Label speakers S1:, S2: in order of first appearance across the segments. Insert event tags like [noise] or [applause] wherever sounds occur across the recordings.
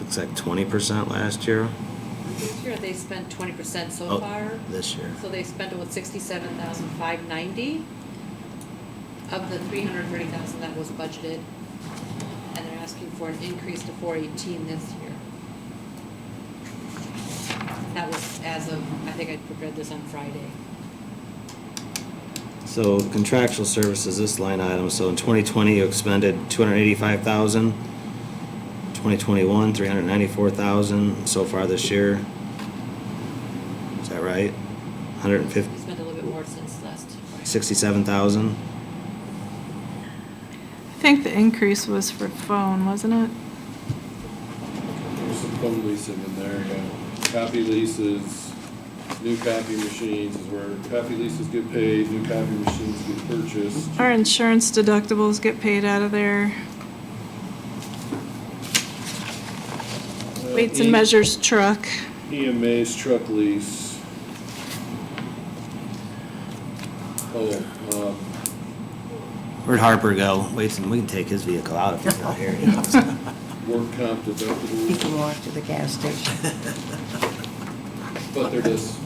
S1: Looks like twenty percent last year.
S2: This year, they spent twenty percent so
S1: Oh,
S2: far.
S1: This year.
S2: So they spent about sixty-seven thousand five ninety of the three hundred thirty thousand that was budgeted. And they're asking for an increase to four eighteen this year. That was as of, I think I prepared this on Friday.
S1: So contractual services, this line item, so in twenty twenty, you expended two hundred eighty-five thousand. Twenty twenty-one, three hundred ninety-four thousand so far this year. Is that right? Hundred and
S2: We
S1: fifty,
S2: spent a little bit more since last Friday.
S1: sixty-seven thousand?
S3: I think the increase was for phone, wasn't it?
S4: There's some phone leasing in there, yeah. Copy leases, new copy machines is where copy leases get paid, new copy machines get purchased.
S3: Our insurance deductibles get paid out of there.
S4: Uh,
S3: Weights
S4: E-
S3: and measures truck.
S4: EMA's E truck lease. Oh, um,
S1: Where'd Harper go? Wait, we can take his vehicle out if he's not here. you [laughs] know.
S4: work comp
S5: You
S4: deductibles,
S5: can walk to the gas station.
S4: but they're just.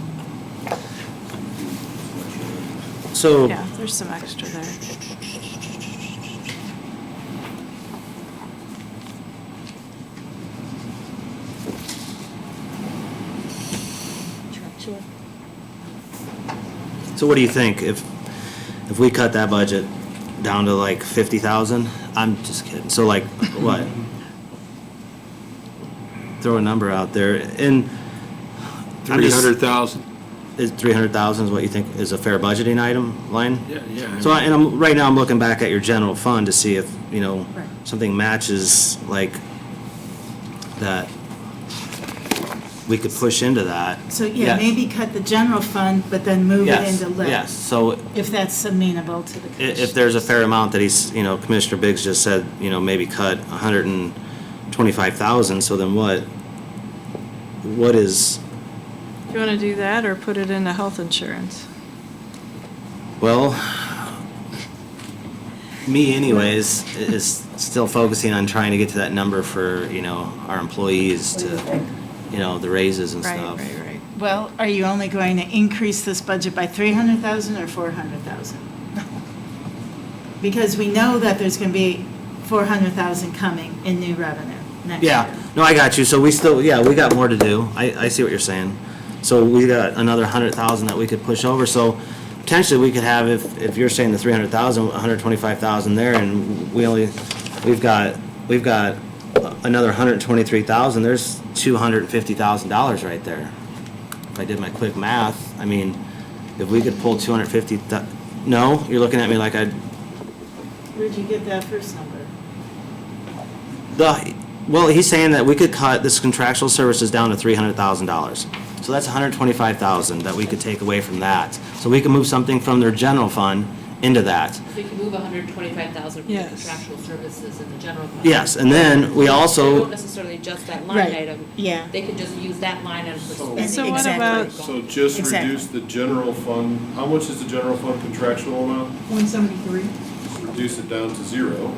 S1: So.
S3: Yeah, there's some extra there.
S1: So what do you think if, if we cut that budget down to like fifty thousand? I'm just kidding. So
S6: [laughs]
S1: like what? Throw a number out there and. I'm
S7: Three
S1: just-
S7: hundred thousand.
S1: Is three hundred thousand is what you think is a fair budgeting item line?
S7: Yeah, yeah.
S1: So I, and I'm, right now I'm looking back at your general fund to see if, you know,
S5: Right.
S1: something matches like that. We could push into that.
S6: So, yeah,
S1: Yes.
S6: maybe cut the general fund, but then move it
S1: Yes,
S6: into lit.
S1: yes. So
S6: If that's amenable to the
S1: I-
S6: commission.
S1: If there's a fair amount that he's, you know, Commissioner Biggs just said, you know, maybe cut hundred and twenty-five thousand, so then what? What is,
S3: Do you want to do that or put it into health insurance?
S1: well, me anyways, i- is still focusing on trying to get to that number for, you know, our employees to, you know, the raises and
S3: Right,
S1: stuff.
S3: right, right.
S6: Well, are you only going to increase this budget by 300,000 or 400,000? [laughs] Because we know that there's going to be 400,000 coming in new revenue next year.
S1: Yeah, no, I got you, so we still, yeah, we got more to do, I, I see what you're saying. So we got another hundred thousand that we could push over, so potentially we could have, if, if you're saying the three hundred thousand, hundred twenty-five thousand there, and we only, we've got, we've got another hundred twenty-three thousand, there's two hundred and fifty thousand dollars right there. If I did my quick math, I mean, if we could pull two hundred fifty no, you're looking at me like I'd,
S6: Where'd you get that first number?
S1: The, well, he's saying that we could cut this contractual services down to three hundred thousand dollars. So that's $125,000 that we could take away from that. So we can move something from their general fund into that.
S2: So you can move hundred and twenty-five thousand from the
S3: Yes.
S2: contractual services in the general fund.
S1: Yes, and then we
S2: They
S1: also,
S2: don't necessarily adjust that line
S6: Right,
S2: item.
S6: yeah.
S2: They can just use that line item for spending.
S6: And
S3: So what
S6: Exactly.
S3: about,
S4: So just
S6: Exactly.
S4: reduce the general fund, how much is the general fund contractual amount?
S6: 173.
S4: Just reduce it down to zero.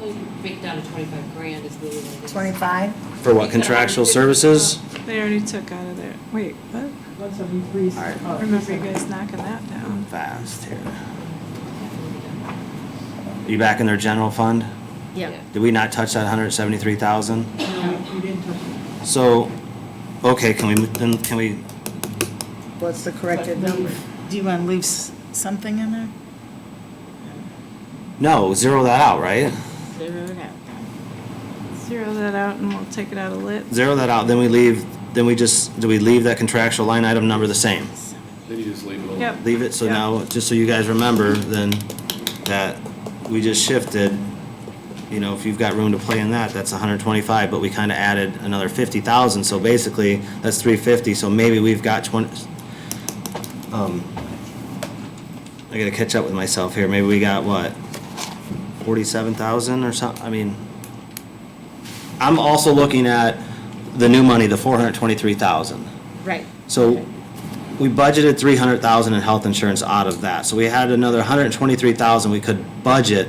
S2: Well, you can break down to twenty-five grand is really what it is.
S5: 25?
S1: for what contractual services?
S3: they already took out of there. Wait, what?
S6: 173.
S3: I remember you guys knocking that down.
S1: Fast here. Are you back in their general fund?
S2: Yeah.
S6: Yep.
S1: Did we not touch that hundred seventy-three thousand?
S6: You didn't touch it.
S1: So, okay, can we, then can we,
S5: What's the corrected
S6: But leave-
S5: number?
S6: Do you want to leave s- something in there?
S1: no, zero that out, right?
S6: Zero it out.
S3: Zero that out and we'll take it out of lit.
S1: Zero that out, then we leave, then we just, do we leave that contractual line item number the same?
S4: Then you just leave it alone.
S3: Yep.
S1: leave it, so
S3: Yeah.
S1: now, just so you guys remember, then, that we just shifted, you know, if you've got room to play in that, that's hundred twenty-five, but we kinda added another fifty thousand, so basically, that's three fifty, so maybe we've got twenty, um, I gotta catch up with myself here, maybe we got what, forty-seven thousand or something. I mean, I'm also looking at the new money, the four hundred twenty-three thousand.
S6: Right.
S1: So we budgeted three hundred thousand in health insurance out of that. So we had another hundred and twenty-three thousand we could budget